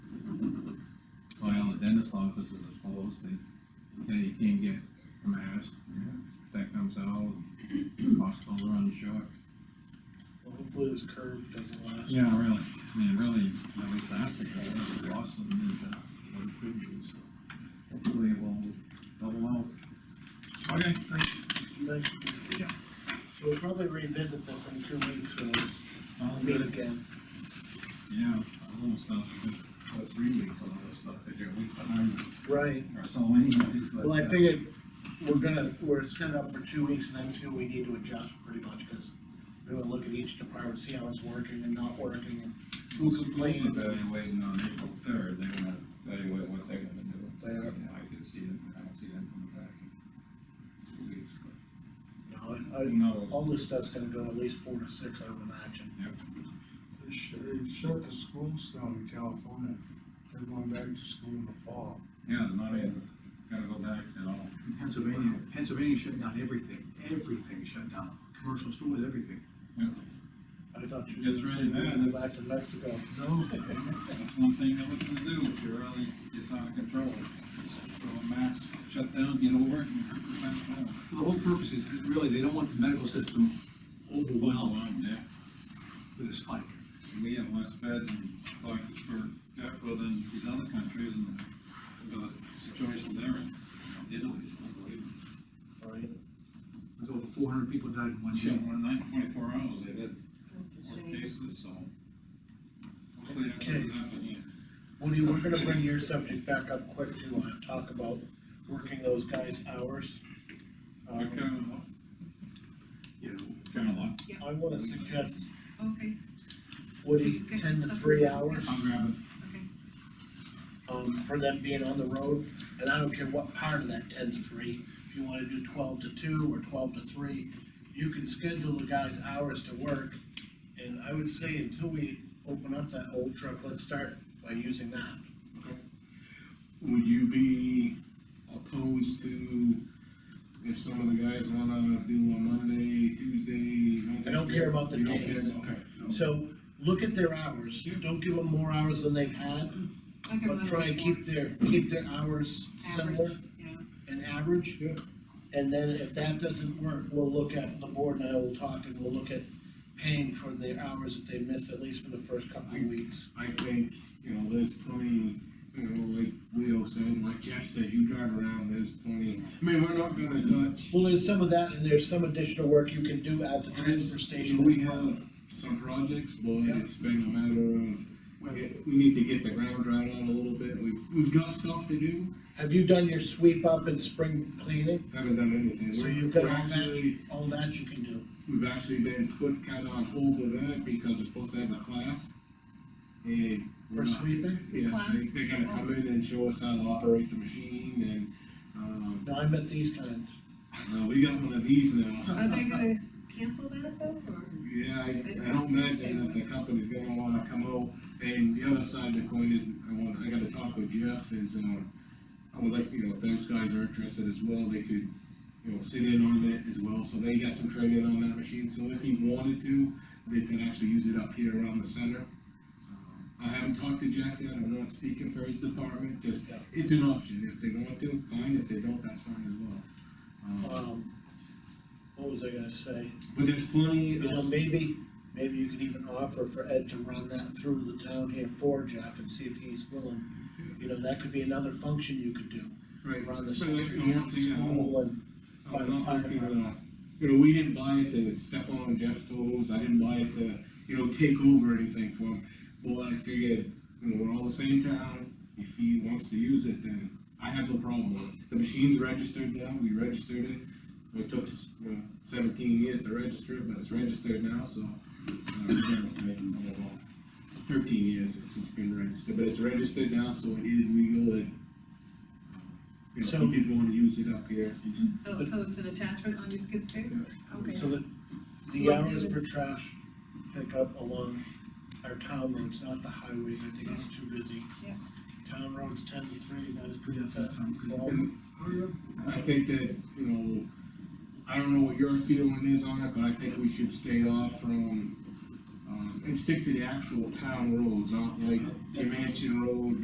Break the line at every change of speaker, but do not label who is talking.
dentist office is closed, and, and you can't get Maris, that comes out, hospital runs short.
Well, hopefully this curve doesn't last.
Yeah, really, I mean, really, at least that's the goal, we lost them in the, what it could be, uh, so. Hopefully it will double out. Okay, thanks.
Thank you.
Yeah.
So we'll probably revisit this in two weeks when we
All
meet
good,
again.
yeah, a little stuff, but three weeks, a lot of stuff, because you're a week behind
Right.
or so anyways, but.
Well, I
uh,
figured we're gonna, we're set up for two weeks and then see what we need to adjust pretty much, cause we're gonna look at each department, see how it's working and not working and
Who
who's
complains
complaining.
evaluating on April third, they're gonna evaluate what they're gonna do. And I can see them, I don't see them coming back in two weeks, but
No,
who
I,
knows?
all this stuff's gonna go at least four to six, I would imagine.
They shut, they shut the schools down in California, they're going back to school in the fall.
Yeah, not even, gotta go back at all.
Pennsylvania, Pennsylvania shut down everything, everything shut down, commercial stores, everything.
Yeah,
I thought you.
It's really bad,
Go Back
that's-
to Mexico.
No.
That's one thing they're looking to do, if you're really, it's out of control. Just Throw a mask, shut down, get over it, and prevent it all.
The whole purpose is that really, they don't want the medical system overwhelmed
yeah.
with a spike.
And We have less beds and doctors per capita than these other countries and the situation they're in. Italy is unbelievable.
Right.
There's over four hundred people died in one
Yeah,
year.
one night, twenty-four hours, they had
That's a
four
shame.
cases, so. Hopefully that doesn't happen here.
Woody, we're gonna bring your subject back up quick to, uh, talk about working those guys' hours. Um,
But kind of, luck-
You know,
kind of luck.
I wanna suggest,
Okay,
Woody, ten to three hours.
I'll grab it.
okay.
um, for them being on the road, and I don't care what part of that ten to three, if you wanna do twelve to two or twelve to three, you can schedule the guys' hours to work, and I would say until we open up that old truck, let's start by using that.
Would you be opposed to if some of the guys wanna do a Monday, Tuesday? Wednesday?
I don't care about the
You don't
days.
care, okay.
So, look at their hours, don't give them more hours than they've had,
I can
but
run
try and
more.
keep their, keep their hours similar
Average, yeah.
and average.
Yeah.
And then if that doesn't work, we'll look at, the board and I will talk and we'll look at paying for their hours that they missed, at least for the first couple of weeks.
I think, you know, there's plenty, you know, like Leo said, like Jeff said, you drive around, there's plenty. I mean, we're not gonna touch.
Well, there's some of that and there's some additional work you can do at the transfer station.
We have some projects, but it's been a matter of, we get- we need to get the ground dried out a little bit. We've, we've got stuff to do,
Have you done your sweep up and spring cleaning?
haven't done anything.
So
We're-
you've got
we're
all that,
actually-
you- all that you can do.
We've actually been put kind of on hold with that because we're supposed to have a class. And. we're
For
not-
sweeping?
Yes, they,
Class?
they're gonna come in and show us how to operate the machine and, um,
No, I meant these kinds.
uh, we got one of these now.
Are they gonna cancel that though, or?
Yeah, I, I don't imagine that the company's gonna wanna come out. And the other side of the coin is, I want, I gotta talk with Jeff is, um, I would like, you know, if those guys are interested as well, they could, you know, sit in on it as well. So they got some training on that machine, so if he wanted to, they could actually use it up here around the center. Uh, I haven't talked to Jeff yet, I'm not speaking for his department, just, it's an option. If they want to, fine, if they don't, that's fine as well. Um,
Um, what was I gonna say?
But there's plenty,
You know,
of
maybe, maybe you could even offer for Ed to run that through the town here for Jeff and see if he's willing. You know, that could be another function you could do,
right,
around the
So, like,
center,
the
you know,
one thing I
school and,
I'm not looking, uh, you know, we didn't buy it to step on Jeff's toes, I didn't buy it to, you know, take over anything for him. Well, I figured, you know, we're all the same town, if he wants to use it, then I have no problem with it. The machine's registered now, we registered it, it took, you know, seventeen years to register it, but it's registered now, so. uh, we're gonna make it more than Thirteen years since it's been registered, but it's registered now, so it is legal, and. uh, You know,
So-
he did wanna use it up here.
Oh, so it's an attachment on your skid steer? Okay.
so that the hours for trash pickup along our town roads, not the highways, I think it's too busy.
Yeah.
Town roads ten to three, that is pretty.
that sounds good.
Um, I think that, you know, I don't know what your feeling is on it, but I think we should stay off from, um, and stick to the actual town roads, not like your mansion road,